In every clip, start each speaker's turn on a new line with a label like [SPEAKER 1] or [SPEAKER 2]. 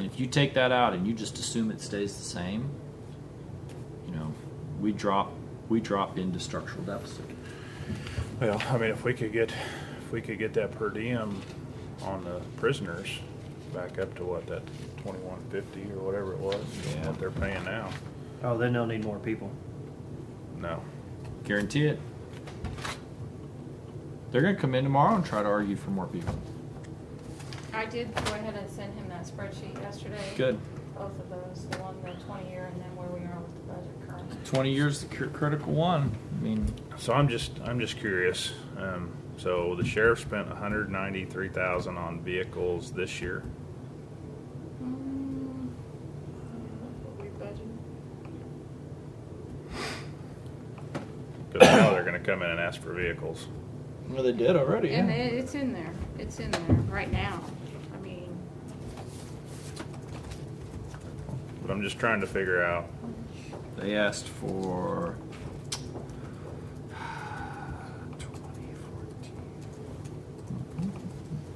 [SPEAKER 1] If you take that out and you just assume it stays the same, you know, we drop we drop into structural deficit.
[SPEAKER 2] Well, I mean, if we could get, if we could get that per diem on the prisoners back up to what, that twenty-one fifty or whatever it was,
[SPEAKER 1] Yeah.
[SPEAKER 2] what they're paying now,
[SPEAKER 3] Oh, then they'll need more people.
[SPEAKER 2] no.
[SPEAKER 1] Guarantee it. They're going to come in tomorrow and try to argue for more people.
[SPEAKER 4] I did go ahead and send him that spreadsheet yesterday.
[SPEAKER 1] Good.
[SPEAKER 4] Both of those, the one, the twenty year, and then where we are with the budget currently.
[SPEAKER 1] 20 years the cr- critical one. I mean,
[SPEAKER 2] So I'm just, I'm just curious, um, so the sheriff spent a hundred ninety-three thousand on vehicles this year,
[SPEAKER 4] Mm, what we budgeted.
[SPEAKER 2] cause now they're gonna come in and ask for vehicles.
[SPEAKER 1] well, they did already.
[SPEAKER 4] And it, it's in there, it's in there right now. I mean,
[SPEAKER 2] But I'm just trying to figure out,
[SPEAKER 1] They asked for.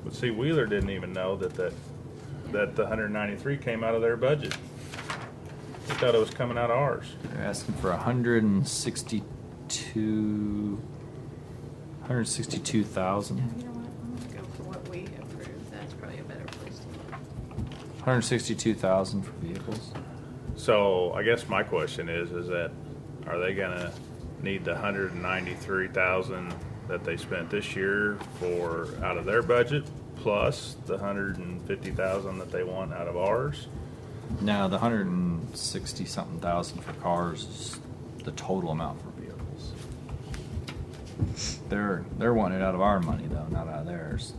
[SPEAKER 2] but see, Wheeler didn't even know that that, that the hundred ninety-three came out of their budget. They thought it was coming out of ours.
[SPEAKER 1] They're asking for 162. 162,000.
[SPEAKER 5] No, you know what? I'm gonna go for what we approved. That's probably a better place to look.
[SPEAKER 1] 162,000 for vehicles.
[SPEAKER 2] So I guess my question is, is that are they gonna need the hundred and ninety-three thousand that they spent this year for out of their budget plus the hundred and fifty thousand that they want out of ours?
[SPEAKER 1] No, the 160 something thousand for cars is the total amount for vehicles. They're they're wanting it out of our money though, not out of theirs.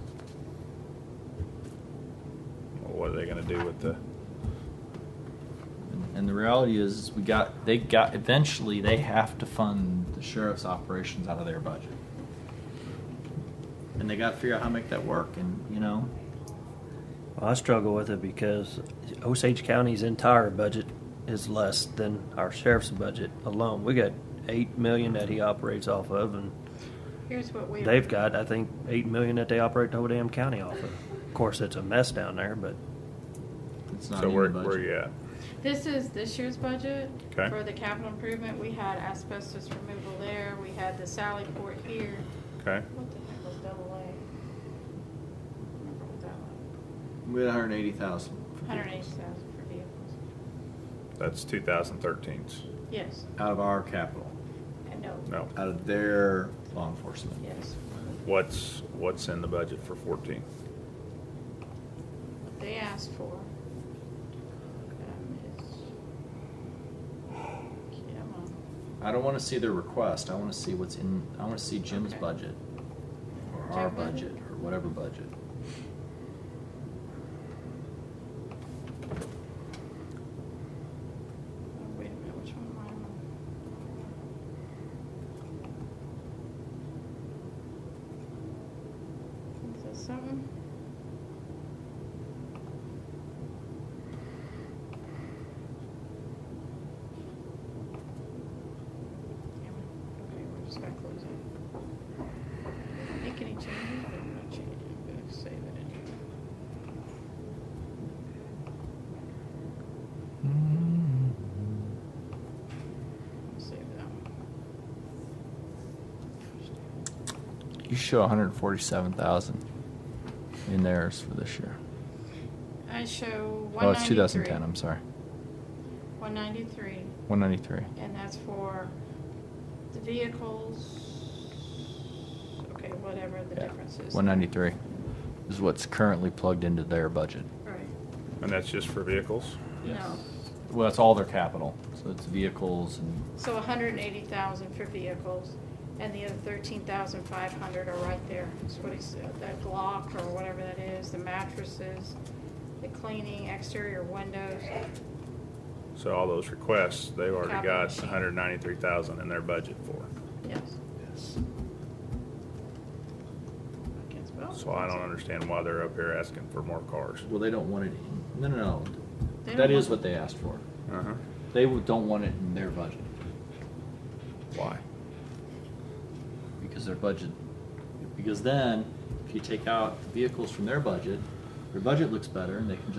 [SPEAKER 2] Or what are they gonna do with the?
[SPEAKER 1] And, and the reality is, is we got they got eventually they have to fund the sheriff's operations out of their budget. And they got to figure out how to make that work and you know,
[SPEAKER 3] Well, I struggle with it because Osage County's entire budget is less than our sheriff's budget alone. We got eight million that he operates off of, and
[SPEAKER 4] here's what we.
[SPEAKER 3] they've got I think eight million that they operate the whole damn county off of. Of course, it's a mess down there, but
[SPEAKER 1] it's not
[SPEAKER 2] so
[SPEAKER 1] in
[SPEAKER 2] where
[SPEAKER 1] the budget.
[SPEAKER 2] where you at?
[SPEAKER 4] This is this year's budget.
[SPEAKER 2] Okay.
[SPEAKER 4] For the capital improvement, we had asbestos removal there, we had the Sally Port here.
[SPEAKER 2] Okay,
[SPEAKER 4] What the heck was double A? Remember what that was?
[SPEAKER 1] We had 180,000. for
[SPEAKER 4] Hundred eighty
[SPEAKER 1] vehicles.
[SPEAKER 4] thousand for vehicles.
[SPEAKER 2] that's 2013's.
[SPEAKER 4] Yes,
[SPEAKER 1] out of our capital,
[SPEAKER 4] I know.
[SPEAKER 2] No,
[SPEAKER 1] out of their law enforcement.
[SPEAKER 4] Yes.
[SPEAKER 2] what's what's in the budget for 14?
[SPEAKER 4] They asked for. um, is- Come on.
[SPEAKER 1] I don't want to see their request. I want to see what's in. I want to see Jim's
[SPEAKER 4] Okay.
[SPEAKER 1] budget, or our
[SPEAKER 4] Jim budget?
[SPEAKER 1] budget, or whatever budget.
[SPEAKER 4] Oh, Wait a minute, which one am I on? Is this something? Damn it. Okay, we're just gonna close it. Make any changes? I'm not changing, I'm gonna save it anyway. Save that one.
[SPEAKER 1] You show 147,000 in theirs for this year.
[SPEAKER 4] I show
[SPEAKER 1] Oh, it's
[SPEAKER 4] 193.
[SPEAKER 1] 2010. I'm sorry,
[SPEAKER 4] 193,
[SPEAKER 1] 193.
[SPEAKER 4] and that's for the vehicles, okay, whatever the
[SPEAKER 1] Yeah,
[SPEAKER 4] difference is.
[SPEAKER 1] 193 is what's currently plugged into their budget.
[SPEAKER 4] Right,
[SPEAKER 2] And that's just for vehicles.
[SPEAKER 4] no.
[SPEAKER 1] Well, that's all their capital. So it's vehicles and
[SPEAKER 4] So 180,000 for vehicles, and the other 13,500 are right there. That's what he said, that Glock or whatever that is, the mattresses, the cleaning, exterior windows.
[SPEAKER 2] So all those requests, they've already
[SPEAKER 4] Capital
[SPEAKER 2] got
[SPEAKER 4] machine.
[SPEAKER 2] 193,000 in their budget for.
[SPEAKER 4] Yes.
[SPEAKER 1] yes.
[SPEAKER 4] I can't spell.
[SPEAKER 2] So I don't understand why they're up here asking for more cars.
[SPEAKER 1] Well, they don't want it. In. No, no, no.
[SPEAKER 4] They
[SPEAKER 1] That
[SPEAKER 4] don't
[SPEAKER 1] is
[SPEAKER 4] want-
[SPEAKER 1] what they asked for.
[SPEAKER 2] Uh-huh.
[SPEAKER 1] They don't want it in their budget
[SPEAKER 2] Why?
[SPEAKER 1] because their budget. Because then, if you take out the vehicles from their budget, their budget looks better, and they can just